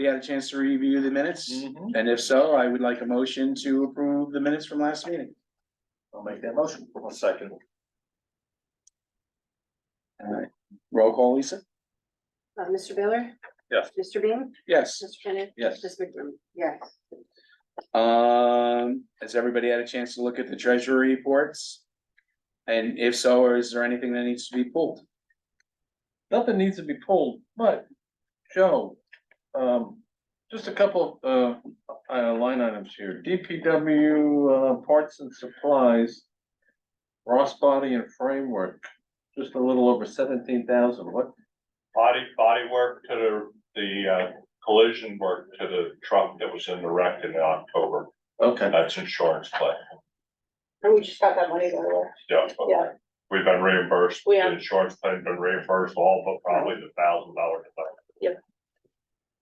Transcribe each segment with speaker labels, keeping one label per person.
Speaker 1: we had a chance to review the minutes?
Speaker 2: Mhm.
Speaker 1: And if so, I would like a motion to approve the minutes from last meeting.
Speaker 2: I'll make that motion. One second.
Speaker 1: Roll call, Lisa?
Speaker 3: Uh, Mr. Baylor?
Speaker 2: Yes.
Speaker 3: Mr. Bean?
Speaker 1: Yes.
Speaker 3: Mr. Kenneth?
Speaker 2: Yes.
Speaker 3: Ms. McDermott? Yes.
Speaker 1: Um, has everybody had a chance to look at the treasury reports? And if so, or is there anything that needs to be pulled?
Speaker 2: Nothing needs to be pulled, but Joe, um, just a couple of, uh, uh, line items here. DPW, uh, parts and supplies. Ross body and framework, just a little over seventeen thousand. What,
Speaker 4: Body, body work to the, the uh, collision work to the truck that was in the wreck in October,
Speaker 2: okay,
Speaker 4: that's insurance claim.
Speaker 3: And we just got that money by the way.
Speaker 4: Yeah. but
Speaker 3: Yeah.
Speaker 4: We've been reimbursed,
Speaker 3: We have.
Speaker 4: the insurance claim's been reimbursed all, but probably the thousand dollar.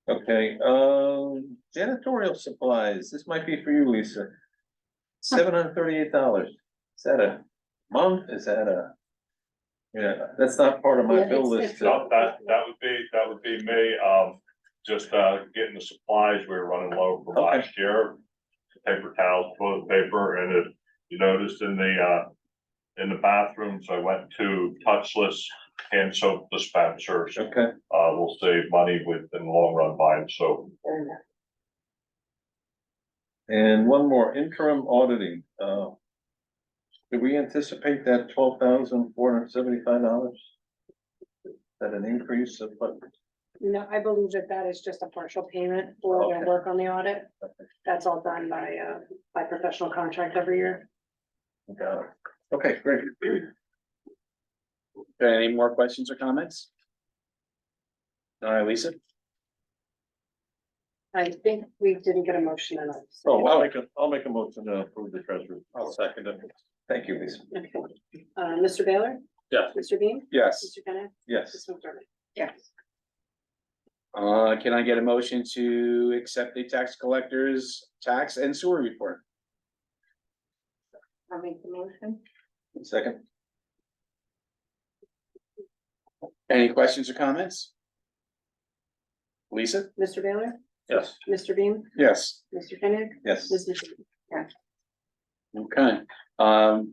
Speaker 2: okay, um, janitorial supplies, this might be for you, Lisa. Seven hundred thirty-eight dollars. Is that a month? Is that a? Yeah, that's not part of
Speaker 3: Yeah,
Speaker 2: my
Speaker 3: it's-
Speaker 2: bill
Speaker 3: it's
Speaker 2: list.
Speaker 3: not.
Speaker 4: No, that, that would be, that would be me, um, just, uh, getting the supplies, we were running low for
Speaker 2: Okay.
Speaker 4: last year. Paper towels, toilet paper, and if you noticed in the, uh, in the bathrooms, I went to touchless hand soap dispensers.
Speaker 2: Okay.
Speaker 4: Uh, we'll save money with, in the long run buying soap.
Speaker 2: And one more interim auditing, uh. Do we anticipate that twelve thousand four hundred seventy-five dollars? That an increase of what?
Speaker 3: No, I believe that that is just a partial payment for their
Speaker 2: Okay.
Speaker 3: work on the audit. That's all done by, uh, by professional contract every year.
Speaker 2: uh, Okay, great.
Speaker 1: Any more questions or comments? All right, Lisa?
Speaker 3: I think we didn't get a motion on it.
Speaker 2: So I'll make a, I'll make a motion to approve the treasurer.
Speaker 4: Oh, I'll second it.
Speaker 2: Thank you, Lisa.
Speaker 3: Okay. Uh, Mr. Baylor?
Speaker 4: Yes.
Speaker 3: Mr. Bean?
Speaker 1: Yes.
Speaker 3: Mr. Kenneth? Ms.
Speaker 2: Yes,
Speaker 3: McDermott? Yes.
Speaker 1: Uh, can I get a motion to accept the tax collector's tax and sewer report?
Speaker 3: I'll make the motion.
Speaker 2: second.
Speaker 1: Any questions or comments? Lisa?
Speaker 3: Mr. Baylor?
Speaker 2: Yes.
Speaker 3: Mr. Bean?
Speaker 1: Yes.
Speaker 3: Mr. Kenneth?
Speaker 2: Yes.
Speaker 3: Ms. McDermott?
Speaker 1: Okay, um,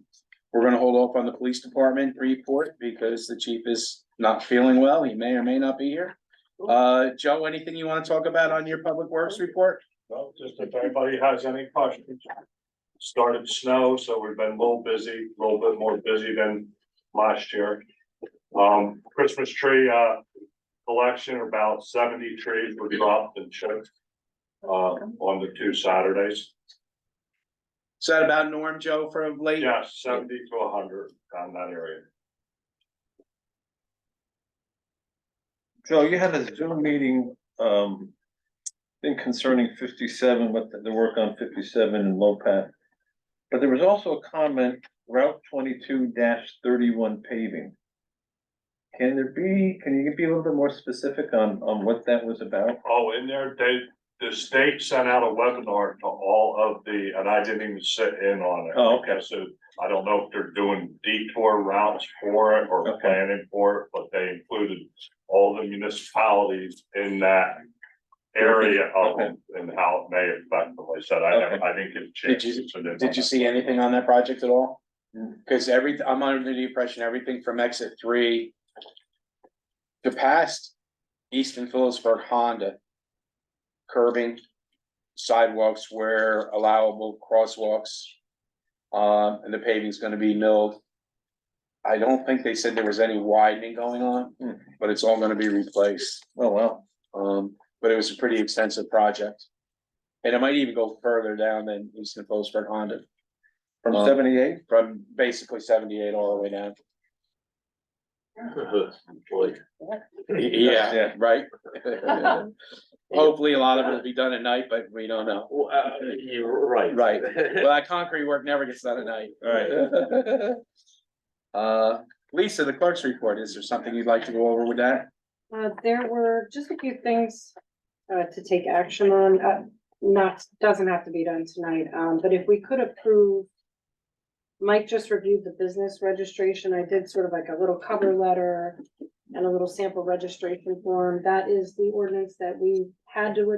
Speaker 1: we're gonna hold off on the police department report because the chief is not feeling well. He may or may not be here. Uh, Joe, anything you wanna talk about on your public works report?
Speaker 4: Well, just if anybody has any questions. Started to snow, so we've been a little busy, a little bit more busy than last year. Um, Christmas tree, uh, collection, about seventy trees were dropped and shipped. Uh, on the two Saturdays,
Speaker 1: Is that about norm, Joe, from late?
Speaker 4: yeah, seventy to hundred on that area.
Speaker 2: Joe, you had a Zoom meeting, um. Thing concerning fifty-seven, what the, the work on fifty-seven and low path. But there was also a comment, Route twenty-two thirty-one paving. Can there be, can you be a little bit more specific on, on what that was about?
Speaker 4: Oh, in there, they, the state sent out a webinar to all of the, and I didn't even sit in on it.
Speaker 2: Oh, okay.
Speaker 4: So I don't know if they're doing detour routes for it or
Speaker 2: Okay.
Speaker 4: planning for it, but they included all the municipalities in that area of
Speaker 2: Okay.
Speaker 4: and how it may affect them. I said, I,
Speaker 2: Okay.
Speaker 4: haven't- I didn't get a
Speaker 1: Did
Speaker 4: chance.
Speaker 1: you-
Speaker 4: to sit in on
Speaker 1: Did you
Speaker 4: it.
Speaker 1: see anything on that project at all?
Speaker 2: Mm.
Speaker 1: Cause every, I'm under the impression everything from exit three. To past Easton Phillipsburg Honda. Curbing sidewalks where allowable crosswalks. Um, and the paving's gonna be milled. I don't think they said there was any widening going on,
Speaker 2: Hmm.
Speaker 1: but it's all gonna be replaced.
Speaker 2: Oh, wow.
Speaker 1: Um, but it was a pretty extensive project. And it might even go further down than Easton Phillipsburg Honda,
Speaker 2: From
Speaker 1: Um,
Speaker 2: seventy-eight?
Speaker 1: from basically seventy-eight all the way down. Yeah,
Speaker 2: Yeah.
Speaker 1: right? Hopefully, a lot of it'll be done at night, but we don't know.
Speaker 5: Well, uh, you're right.
Speaker 1: Right. Well, that concrete work never gets done at night. Right. Uh, Lisa, the clerk's report, is there something you'd like to go over with that?
Speaker 3: Uh, there were just a few things, uh, to take action on, uh, not, doesn't have to be done tonight, um, but if we could approve. Mike just reviewed the business registration. I did sort of like a little cover letter and a little sample registration form. That is the ordinance that we had to